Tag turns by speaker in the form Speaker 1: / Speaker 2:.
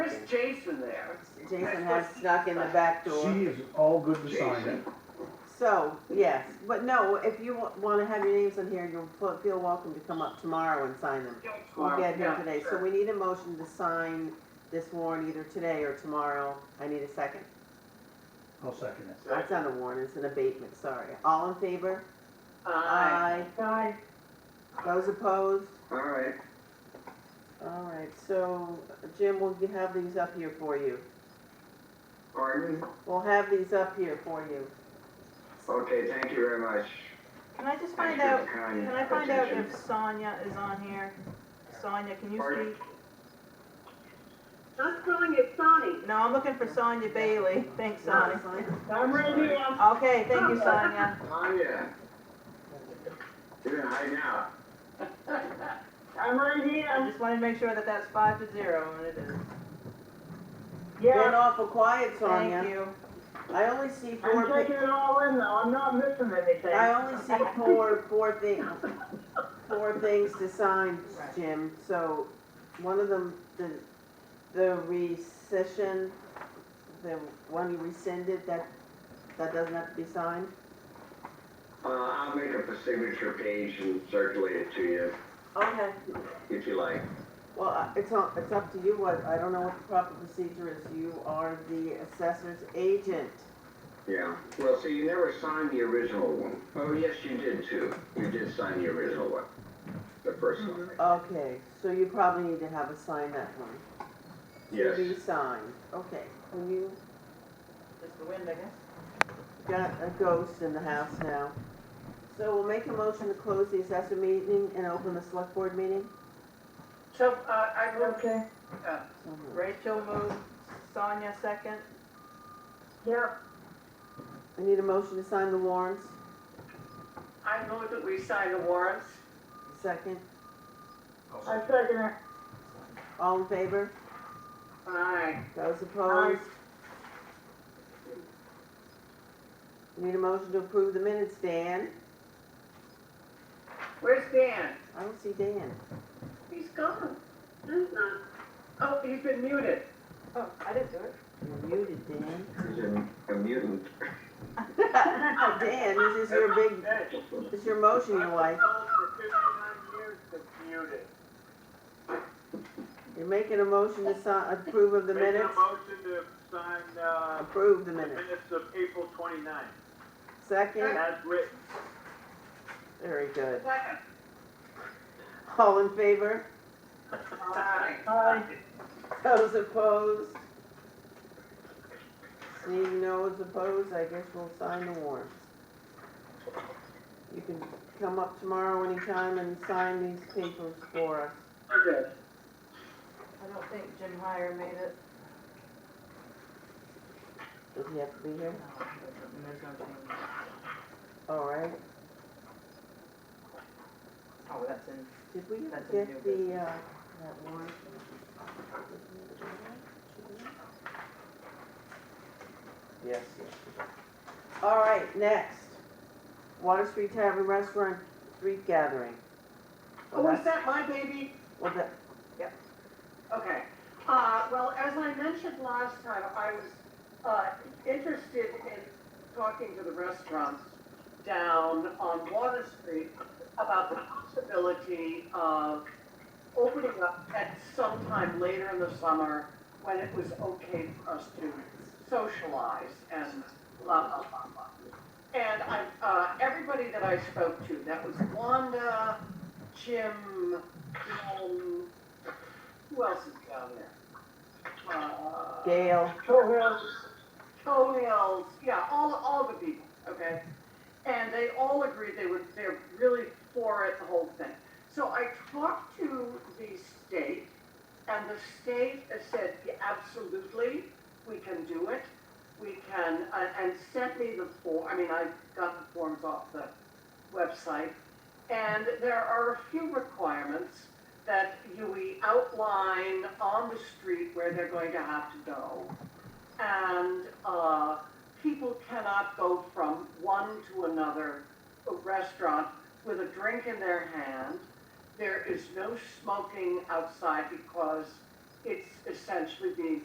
Speaker 1: there's Jason there.
Speaker 2: Jason has snuck in the back door.
Speaker 3: She is all good to sign it.
Speaker 2: So, yes, but no, if you wa- wanna have your names on here, you'll feel- feel welcome to come up tomorrow and sign them. We'll get here
Speaker 1: Yeah,
Speaker 2: today, so
Speaker 1: sure.
Speaker 2: we need a motion to sign this warrant either today or tomorrow. I need a second.
Speaker 3: I'll second it.
Speaker 2: That's not a warrant, it's an abatement, sorry. All in favor?
Speaker 1: Aye.
Speaker 2: Aye. Those opposed?
Speaker 1: All right.
Speaker 2: All right, so Jim, we'll g- have these up here for you.
Speaker 1: Pardon?
Speaker 2: We'll have these up here for you.
Speaker 1: Okay, thank you very much.
Speaker 4: Can I just
Speaker 1: Thank
Speaker 4: find
Speaker 1: you for
Speaker 4: out,
Speaker 1: the kind
Speaker 4: can I find out if
Speaker 1: attention.
Speaker 4: Sonia is on here? Sonia, can you
Speaker 1: Pardon?
Speaker 4: speak?
Speaker 5: I'm calling it Sonny.
Speaker 4: No, I'm looking for Sonia Bailey. Thanks, Sonia.
Speaker 5: I'm right here.
Speaker 4: Okay, thank you, Sonia.
Speaker 1: Oh, yeah. You're high now.
Speaker 5: I'm right
Speaker 4: I
Speaker 5: here.
Speaker 4: just wanted to make sure that that's five to zero, and it is.
Speaker 2: Been
Speaker 5: Yeah,
Speaker 2: awful quiet,
Speaker 4: Thank
Speaker 2: Sonia.
Speaker 4: you.
Speaker 2: I only see
Speaker 5: I'm
Speaker 2: four,
Speaker 5: taking
Speaker 2: pi-
Speaker 5: it all in though. I'm not missing anything.
Speaker 2: I only see four, four things, four things to sign,
Speaker 4: Right.
Speaker 2: Jim. So one of them, the, the rescission, the one you rescinded, that, that doesn't have to be signed?
Speaker 6: Uh, I'll make up a signature page and circulate it to you,
Speaker 2: Okay.
Speaker 6: if you like.
Speaker 2: Well, I- it's up, it's up to you, what, I don't know what the proper procedure is, you are the assessor's agent.
Speaker 6: Yeah. Well, see, you never signed the original one. Oh, yes, you did too. You did sign the original one, the first one.
Speaker 2: Okay, so you probably need to have a sign that one.
Speaker 4: Mm-hmm.
Speaker 6: Yes.
Speaker 2: To be signed, okay, when you
Speaker 4: Just the wind, I guess.
Speaker 2: got a ghost in the house now. So we'll make a motion to close the assessor meeting and open the select board meeting?
Speaker 1: So, uh, I will,
Speaker 5: Okay,
Speaker 2: So moved.
Speaker 4: Rachel moved, Sonia second.
Speaker 5: yep,
Speaker 2: I need a motion to sign the warrants,
Speaker 1: I move that we sign the warrants.
Speaker 2: second,
Speaker 5: I second it.
Speaker 2: all in favor?
Speaker 1: Aye.
Speaker 2: Those opposed? Need a motion to approve the minutes, Dan?
Speaker 1: Where's Dan?
Speaker 2: I don't see Dan.
Speaker 1: He's gone. Oh, he's been muted.
Speaker 4: Oh, I didn't do it.
Speaker 2: You're muted, Dan.
Speaker 6: He's a, a mutant.
Speaker 2: Oh, Dan, this is your big, this is your motion you like. You're making a motion to sign, approve of the
Speaker 7: Make a
Speaker 2: minutes?
Speaker 7: motion to sign, uh,
Speaker 2: Approve the
Speaker 7: the
Speaker 2: minutes.
Speaker 7: minutes of April twenty-ninth,
Speaker 2: Second,
Speaker 7: as written.
Speaker 2: very good.
Speaker 1: Second.
Speaker 2: All in favor?
Speaker 1: Aye.
Speaker 5: Aye.
Speaker 2: Those opposed? Seeing no one's opposed, I guess we'll sign the warrants. You can come up tomorrow anytime and sign these papers for us.
Speaker 1: Okay.
Speaker 4: I don't think Jim Heyer made it.
Speaker 2: Does he have to be here?
Speaker 4: No, there's no change.
Speaker 2: All right.
Speaker 4: Oh, that's in.
Speaker 2: Did we
Speaker 4: That's a new
Speaker 2: get the,
Speaker 4: business.
Speaker 2: uh, that warrant? Yes, yes. All right, next. Water Street Tavern Restaurant, street gathering.
Speaker 1: Oh, is that my baby?
Speaker 2: Well, that,
Speaker 1: Okay, uh, well, as I mentioned last time, I was, uh, interested in talking to the restaurants down on Water Street about the possibility of opening up at some time later in the summer when it was okay for us to socialize and blah, blah, blah, blah. And I, uh, everybody that I spoke to, that was Wanda, Jim, um, who else is down there? Uh,
Speaker 2: Gail,
Speaker 5: Cohills,
Speaker 1: Toenails, yeah, all, all the people, okay? And they all agreed they were, they're really for it, the whole thing. So I talked to the state, and the state has said, "Yeah, absolutely, we can do it. We can, uh, and sent me the form, I mean, I got the forms off the website. And there are a few requirements that you, we outline on the street where they're going to have to go and uh, people cannot go from one to another restaurant with a drink in their hand. There is no smoking outside because it's essentially being